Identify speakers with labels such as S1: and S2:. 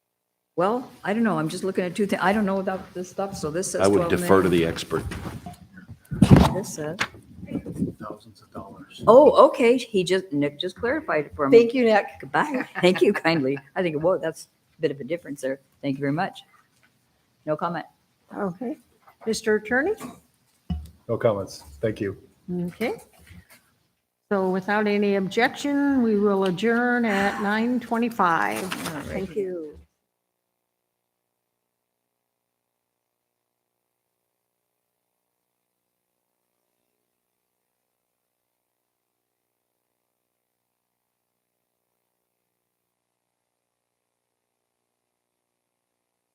S1: Well, I don't know, I'm just looking at two things, I don't know about this stuff, so this says
S2: I
S1: 12
S2: would
S1: million.
S2: defer to the expert.
S1: This says,
S3: thousands of dollars.
S1: oh, okay, he just, Nick just clarified it for me.
S4: Thank you, Nick.
S1: Goodbye. Thank you kindly. I think, whoa, that's a bit of a difference there. Thank you very much. No comment.
S4: Okay. Mr. Attorney?
S3: No comments. Thank you.
S4: Okay. So without any objection, we will adjourn at 9:25. Thank you.